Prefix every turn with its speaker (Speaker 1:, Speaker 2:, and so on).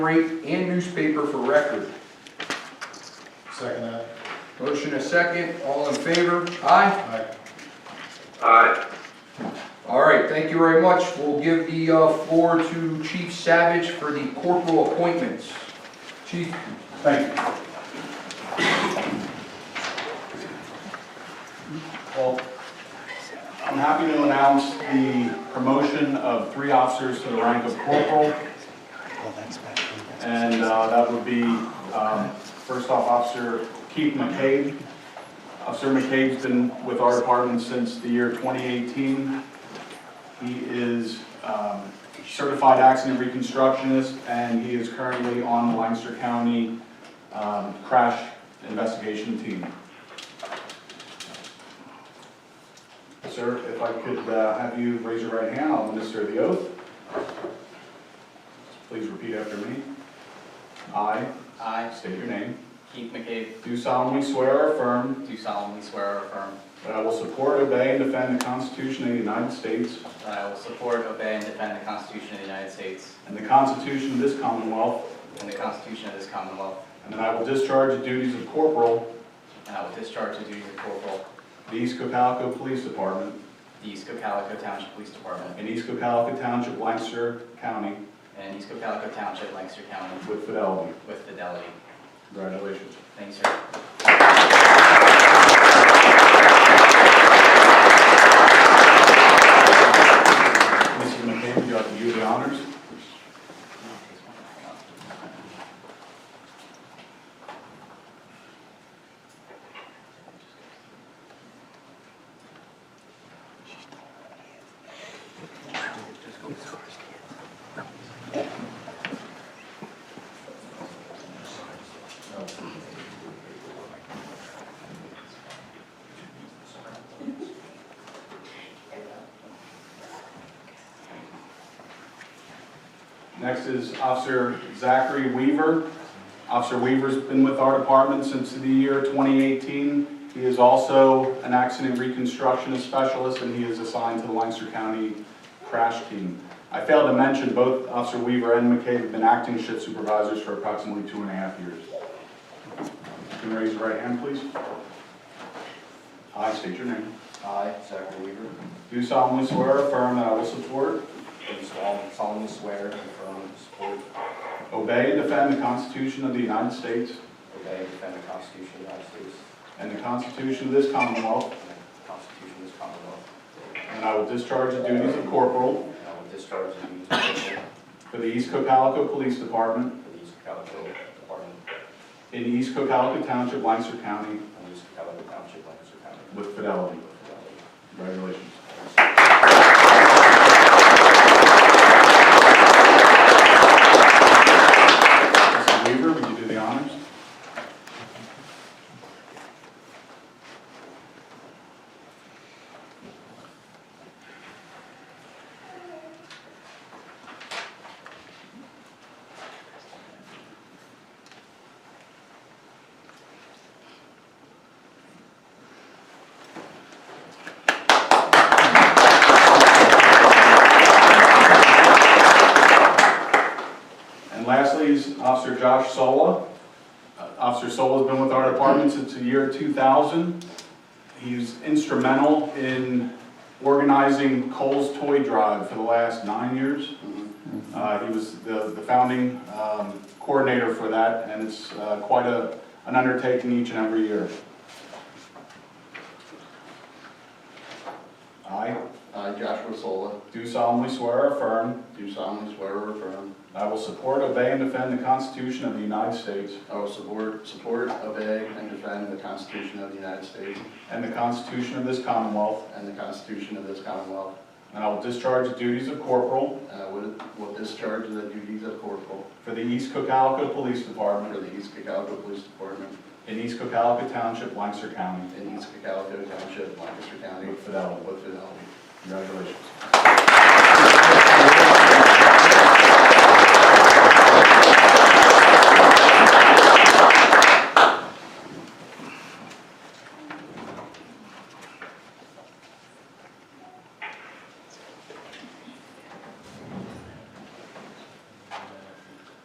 Speaker 1: rate and newspaper for record.
Speaker 2: Second that.
Speaker 1: Motion a second, all in favor? Aye.
Speaker 2: Aye.
Speaker 3: Aye.
Speaker 1: All right, thank you very much. We'll give the uh, floor to Chief Savage for the corporal appointments. Chief,
Speaker 2: Thank you. Well, I'm happy to announce the promotion of three officers to the rank of corporal. And uh, that would be, um, first off, Officer Keith McCabe. Officer McCabe's been with our department since the year 2018. He is um, certified accident reconstructionist, and he is currently on the Lancaster County um, Crash Investigation Team. Sir, if I could uh, have you raise your right hand, I'll administer the oath. Please repeat after me. I
Speaker 4: I,
Speaker 2: state your name.
Speaker 4: Keith McCabe,
Speaker 2: Do solemnly swear or affirm
Speaker 4: do solemnly swear or affirm
Speaker 2: that I will support, obey, and defend the Constitution of the United States
Speaker 4: that I will support, obey, and defend the Constitution of the United States
Speaker 2: and the Constitution of this Commonwealth,
Speaker 4: and the Constitution of this Commonwealth,
Speaker 2: and that I will discharge the duties of corporal
Speaker 4: and I will discharge the duties of corporal
Speaker 2: of the East Calico Police Department
Speaker 4: of the East Calico Township Police Department
Speaker 2: in East Calico Township, Lancaster County,
Speaker 4: and East Calico Township, Lancaster County,
Speaker 2: with fidelity.
Speaker 4: with fidelity.
Speaker 2: Congratulations.
Speaker 4: Thanks, sir.
Speaker 2: Mrs. McCabe, you have to do the honors. Next is Officer Zachary Weaver. Officer Weaver's been with our department since the year 2018. He is also an accident reconstructionist specialist, and he is assigned to the Lancaster County Crash Team. I failed to mention, both Officer Weaver and McCabe have been acting shift supervisors for approximately two and a half years. You can raise your right hand, please. I state your name.
Speaker 5: I, Zachary Weaver,
Speaker 2: Do solemnly swear or affirm that I will support,
Speaker 5: do solemnly swear and affirm to support,
Speaker 2: obey, and defend the Constitution of the United States
Speaker 5: obey, and defend the Constitution of the United States
Speaker 2: And the Constitution of this Commonwealth.
Speaker 5: and the Constitution of this Commonwealth,
Speaker 2: And I will discharge the duties of corporal
Speaker 5: and I will discharge the duties of corporal
Speaker 2: for the East Calico Police Department
Speaker 5: for the East Calico Department
Speaker 2: in East Calico Township, Lancaster County,
Speaker 5: and East Calico Township, Lancaster County.
Speaker 2: with fidelity.
Speaker 5: with fidelity.
Speaker 2: Congratulations. Mrs. Weaver, would you do the honors? And lastly is Officer Josh Sola. Uh, Officer Sola's been with our department since the year 2000. He's instrumental in organizing Cole's Toy Drive for the last nine years. Uh, He was the the founding um, coordinator for that, and it's uh, quite a an undertaking each and every year. I
Speaker 6: I, Joshua Sola,
Speaker 2: do solemnly swear or affirm
Speaker 6: do solemnly swear or affirm
Speaker 2: I will support, obey, and defend the Constitution of the United States
Speaker 6: I will support, support, obey, and defend the Constitution of the United States
Speaker 2: and the Constitution of this Commonwealth,
Speaker 6: and the Constitution of this Commonwealth,
Speaker 2: and I will discharge the duties of corporal
Speaker 6: and I will will discharge the duties of corporal
Speaker 2: for the East Calico Police
Speaker 6: for
Speaker 2: Department
Speaker 6: the East Calico Police Department
Speaker 2: in East Calico Township, Lancaster County.
Speaker 6: in East Calico Township, Lancaster County.
Speaker 2: With fidelity.
Speaker 6: With fidelity.
Speaker 2: Congratulations.